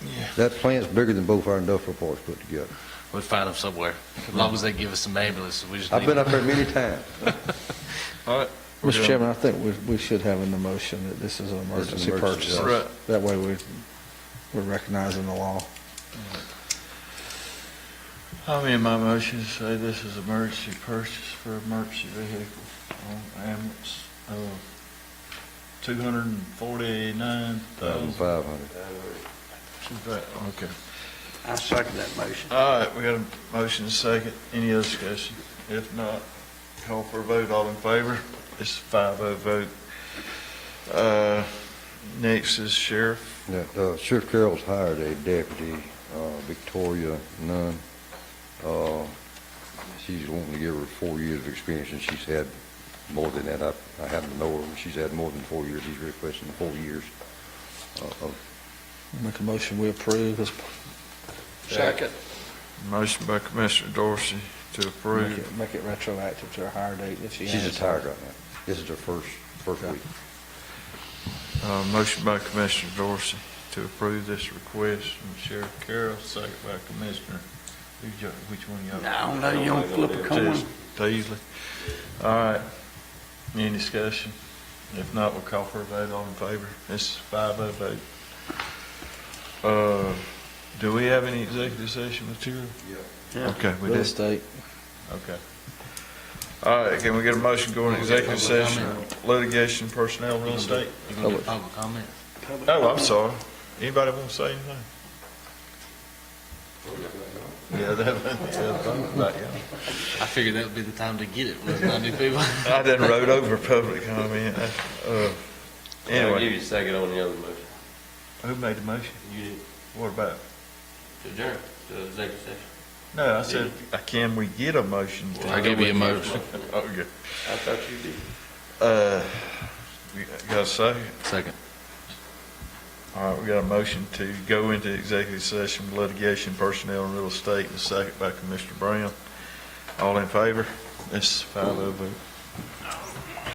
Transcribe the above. That plant's bigger than both our industrial parks put together. We'll find them somewhere, as long as they give us some ambulances, we just need. I've been up there many times. All right. We're Mr. done. Chairman, I think we, we should have in the motion that this is an emergency emergency, purchase. yes. Right. That way we, we're recognizing the law. I'm in my motion to say this is emergency purchase for emergency vehicle on ambulance of two hundred and forty-nine thousand. Five hundred. Okay. I second that motion. All right, we got a motion and a second. Any other discussion? If not, call for a vote. All in favor? It's a five-oh vote. Uh, next is sheriff. That, uh, Sheriff Carroll's hired a deputy, uh, Victoria Nunn. Uh, she's wanting to give her four years of experience, and she's had more than that. I, I happen to know her, and she's had more than four years. She's requesting four years uh, of Make a motion, we approve this. Second. Motion by Commissioner Dorsey to Make approve. it, make it retroactive to a higher date if she has. She's retired right now. This is her first, first week. Uh, motion by Commissioner Dorsey to approve this request from Sheriff Carroll, second by Commissioner, who's your- which one y'all? I don't know, you don't flip a coin. Teasley. All right, any discussion? If not, we'll call for a vote, all in favor. This is five oh vote. Uh, do we have any executive session material? Yeah. Okay, we Real did, estate. okay. All right, can we get a motion going to executive Public session, comment. litigation, personnel, real estate? You gonna get public comment? Oh, I'm sorry. Anybody want to say anything? Yeah, that, that's about it. I figured that would be the time to get it, with not new people. I done rode over public comment. Uh, I'll give Anyway, you a second on the other motion. who made the motion? You did, What about? to adjourn, to executive session. No, I said, uh, can we get a motion? to- I give you a motion. Okay. I thought you did. Uh, we got a second? Second. All right, we got a motion to go into executive session, for litigation, personnel, and real estate, and a second by Commissioner Brown. All in favor? It's five oh vote.